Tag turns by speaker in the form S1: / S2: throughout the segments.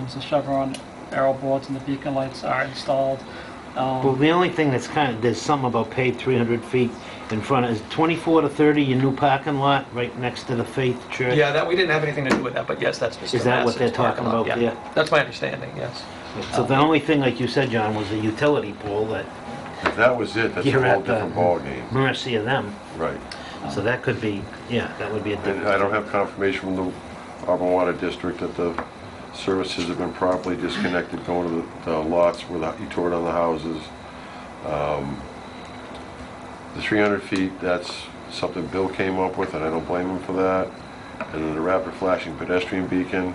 S1: once the Chevron arrow boards and the beacon lights are installed.
S2: Well,
S1: Um,
S2: the only thing that's kind of, there's some about paid 300 feet in front of, is 24 to 30, your new parking lot, right next to the Faith Church?
S3: Yeah, that, we didn't have anything to do with that, but yes, that's Mr.
S2: Is that what
S3: Masson's
S2: they're talking
S3: parking lot,
S2: about
S3: yeah.
S2: there?
S3: That's my understanding, yes.
S2: So the only thing, like you said, John, was the utility pole, that
S4: If that was it, that's
S2: You're
S4: a whole
S2: at the-
S4: different ballgame.
S2: mercy of them.
S4: Right.
S2: So that could be, yeah, that would be a
S4: And
S2: difference.
S4: I don't have confirmation from the Auburn Water District that the services have been properly disconnected going to the- the lots where the- you tore down the houses. Um, The 300 feet, that's something Bill came up with, and I don't blame him for that. And then the rapid flashing pedestrian beacon,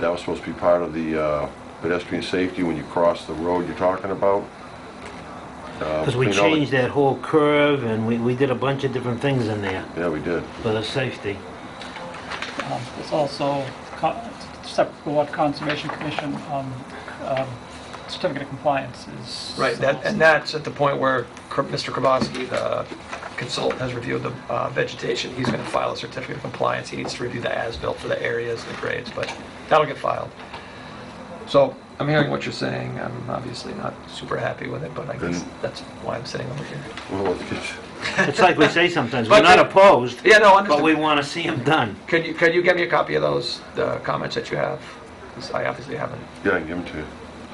S4: that was supposed to be part of the uh, pedestrian safety when you cross the road you're talking about. Uh,
S2: Because we
S4: clean all the-
S2: changed that whole curve, and we, we did a bunch of different things in there
S4: Yeah, we did.
S2: for the safety.
S1: um, There's also co- separate board conservation commission um, um, certificate of compliance is.
S3: Right, that, and that's at the point where Kr- Mr. Krabowski, the consultant, has reviewed the uh, vegetation. He's going to file a certificate of compliance. He needs to review the as-built for the areas, the grades, but that'll get filed. So I'm hearing what you're saying. I'm obviously not super happy with it, but I guess
S4: And-
S3: that's why I'm sitting over here.
S4: Well, it's-
S2: It's like we say sometimes, we're
S3: But
S2: not
S3: then-
S2: opposed,
S3: Yeah, no, understood.
S2: but we want to see them done.
S3: Could you, could you get me a copy of those, the comments that you have? 'Cause I obviously haven't.
S4: Yeah, I can give them to you.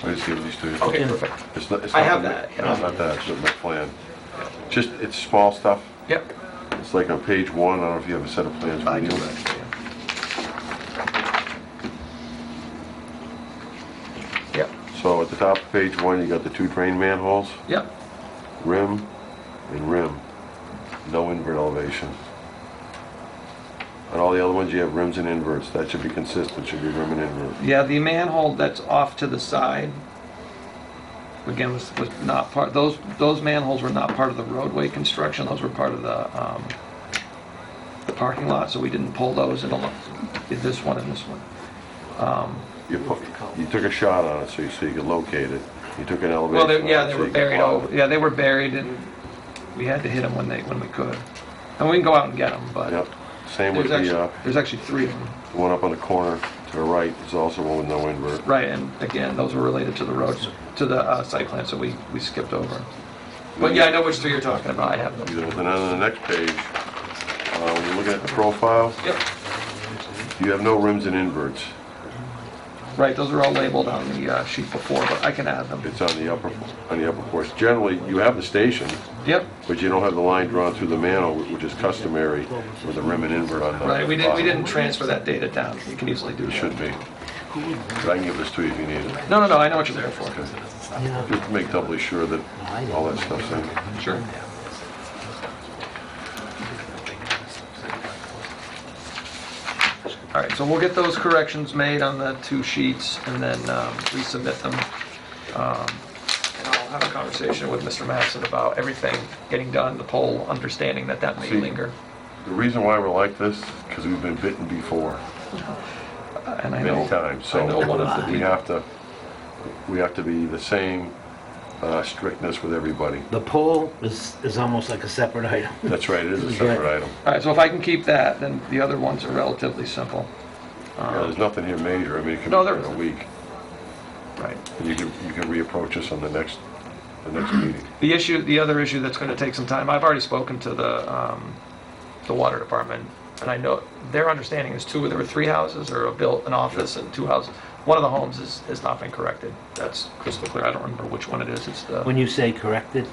S4: I just give these to you.
S3: Okay, perfect.
S4: It's not, it's
S3: I
S4: not.
S3: have
S4: the ma-
S3: that,
S4: No, it's
S3: yeah.
S4: not that, it's not my plan. Just, it's small stuff.
S3: Yep.
S4: It's like on page one, I don't know if you have a set of plans
S3: I
S4: with
S3: do
S4: you.
S3: actually, yeah. Yep,
S4: So at the top of page one, you got the two drain manholes,
S3: yep.
S4: rim and rim. No invert elevation. On all the other ones, you have rims and inverts. That should be consistent, should be rim and invert.
S3: Yeah, the manhole that's off to the side, again, was, was not part, those, those manholes were not part of the roadway construction, those were part of the, um, the parking lot, so we didn't pull those in the, lo- did this one and this one.
S4: You put, you took a shot on it so you, so you could locate it. You took an
S3: Well,
S4: elevation.
S3: they- yeah,
S4: on
S3: they
S4: it so
S3: were
S4: you could
S3: buried
S4: plow
S3: over,
S4: it.
S3: yeah, they were buried and we had to hit them when they, when we could. And we can go out and get them, but
S4: Yep, same with
S3: there's
S4: the,
S3: actually,
S4: uh,
S3: there's actually three of them.
S4: The one up on the corner to the right is also one with no invert.
S3: Right, and again, those were related to the roads, to the uh, site plan, so we, we skipped over. But yeah, I know which three you're talking about, I have them.
S4: Then on the next page, uh, when you're looking at the profile,
S3: Yep,
S4: you have no rims and inverts.
S3: right, those are all labeled on the uh, sheet before, but I can add them.
S4: It's on the upper, on the upper portion. Generally, you have the station,
S3: Yep,
S4: but you don't have the line drawn through the manhole, which is customary with a rim and invert on the
S3: right, we didn't, we
S4: bottom.
S3: didn't transfer that data down, you can easily do
S4: It
S3: that.
S4: should be. But I can give this to you if you need it,
S3: No, no, no, I know what you're there for,
S4: just to make doubly sure that all that stuff's in.
S3: sure. All right, so we'll get those corrections made on the two sheets and then um, resubmit them. Um, And I'll have a conversation with Mr. Masson about everything getting done, the poll, understanding that that may
S4: See.
S3: linger.
S4: The reason why we're like this, because we've been bitten before.
S3: And I
S4: many
S3: know,
S4: times,
S3: I know one
S4: so
S3: of the-
S4: we have to, we have to be the same uh, strictness with everybody.
S2: The pole is, is almost like a separate item.
S4: That's right, it is a separate item.
S3: all right, so if I can keep that, then the other ones are relatively simple.
S4: Yeah, There's nothing here major, I mean, it can be
S3: Uh-huh. No, there
S4: done in a
S3: isn't.
S4: week.
S3: Right.
S4: And you can, you can reapproach us on the next, the next meeting.
S3: The issue, the other issue that's going to take some time, I've already spoken to the, um, the water department, and I know, their understanding is two, there were three houses, or a built, an office and two houses. One of the homes is, has not been corrected. That's crystal clear. I don't remember which one it is. It's the,
S2: When you say corrected,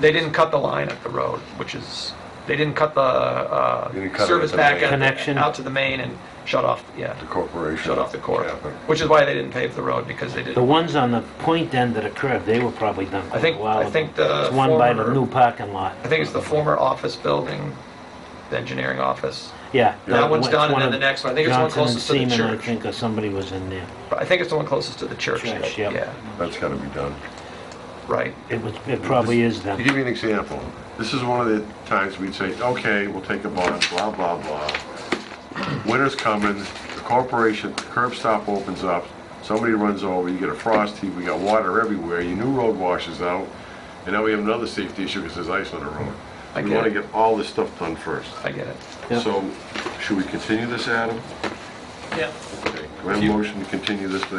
S3: they didn't cut the line at the road, which is, they didn't cut the,
S4: They didn't
S3: uh,
S4: cut it
S3: service
S4: at the
S3: back
S4: main.
S3: at-
S2: Connection.
S3: out to the main and shut off, yeah,
S4: The corporation.
S3: shut off the core,
S4: Yeah, but
S3: which is why they didn't pave the road, because they
S2: the
S3: didn't.
S2: ones on the point end that occurred, they were probably done
S3: I
S2: quite
S3: think,
S2: a while
S3: I
S2: ago.
S3: think the
S2: It's one by the
S3: former-
S2: new parking lot.
S3: I think it's the former office building, the engineering office.
S2: Yeah.
S3: That one's
S2: it's
S3: done, and
S2: one
S3: then
S2: of
S3: the next one. I think it's the one closest to the
S2: Johnson and Seaman,
S3: church.
S2: I think, or somebody was in there.
S3: But I think it's the one closest to the church.
S2: Church,
S3: yeah.
S2: yep.
S4: That's gotta be done.
S3: right.
S2: It was, it probably is
S4: To
S2: them.
S4: give you an example, this is one of the times we'd say, okay, we'll take a bond, blah, blah, blah. Winter's coming, the corporation, the curb stop opens up, somebody runs over, you get a frost heave, we got water everywhere, your new road washes out, and now we have another safety issue because there's ice on the road.
S3: I
S4: We
S3: get
S4: want
S3: it.
S4: to get all this stuff done first.
S3: I get it.
S2: Yeah.
S4: So, should we continue this, Adam?
S1: Yeah.
S4: Okay. Do we have a motion to continue this to